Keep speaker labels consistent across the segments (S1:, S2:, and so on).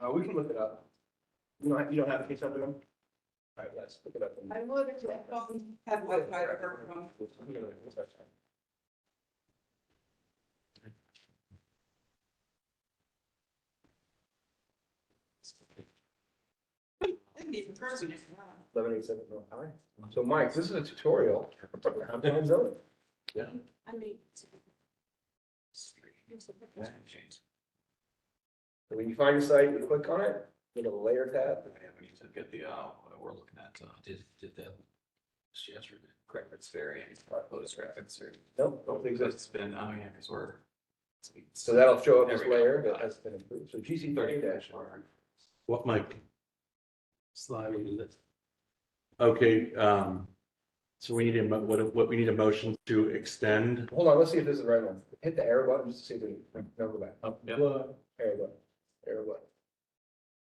S1: Uh, we can look it up. You don't, have- you don't have a case number? All right, let's look it up.
S2: I would if I don't have Wi-Fi or work from. I can be in person if you want.
S1: Eleven eight seven, no, all right. So Mike, this is a tutorial. How to zone.
S2: I mean.
S1: So When you find your site, you click on it, go to the layer tab.
S3: Yeah, we need to get the, uh, what we're looking at, uh, did, did that just yesterday. Correct, it's very, it's Lotus Rapids or.
S1: Nope, don't think so.
S3: It's been, oh yeah, because we're.
S1: So that'll show up as
S3: There we go.
S1: layer that has been improved. So GC thirty dash
S3: R.
S4: What might Slide Okay, um, so we need a, mo- what, what, we need a motion to extend.
S1: Hold on, let's see if this is the right one. Hit the arrow button just to see if it, no, go back.
S3: Oh, yeah.
S1: Arrow button, arrow button.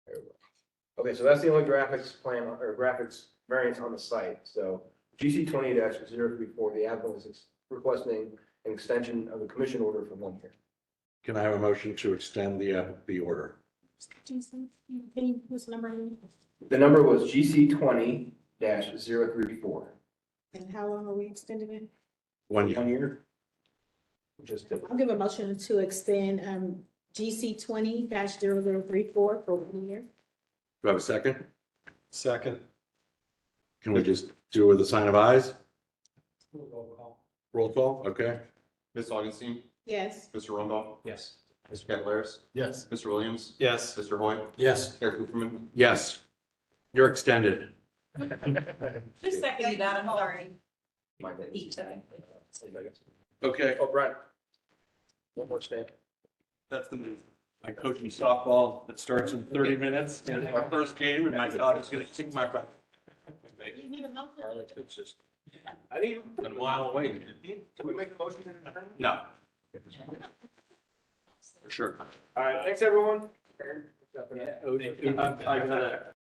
S1: Arrow button. Okay, so that's the only graphics plan or graphics variance on the site. So GC twenty 34 the applicant is ex- requesting an extension of the commission order for one year.
S4: Can I have a motion to extend the, uh, the order?
S5: Jason, you can use number and-
S1: The number was GC twenty 34
S5: and how long are we extending it?
S4: One year.
S1: One year? Just did.
S5: I'll give a motion to extend um GC twenty 34 for one year.
S4: Do I have a second?
S6: Second.
S4: Can we just do it with a sign of eyes? Roll call, okay.
S7: Ms. Augustine,
S5: Yes.
S7: Mr. Rumbaugh,
S3: Yes.
S7: Mr. Cavalaris,
S6: Yes.
S7: Mr. Williams,
S6: Yes.
S7: Mr. Hoy,
S4: Yes.
S7: Eric Cooperman,
S4: Yes. You're extended.
S2: Who seconded that? I'm sorry.
S1: My bad.
S2: Eat time.
S4: Okay,
S1: Oh, Brian. One more stand.
S4: that's the move. I coach me softball that starts in thirty minutes and it's my first game and my God is gonna kick my butt.
S5: You need a motion.
S3: I didn't. Been a while away.
S1: Can we make a motion?
S4: No. For sure.
S1: All right, thanks, everyone.
S3: Yeah. uh,
S4: I I gotta.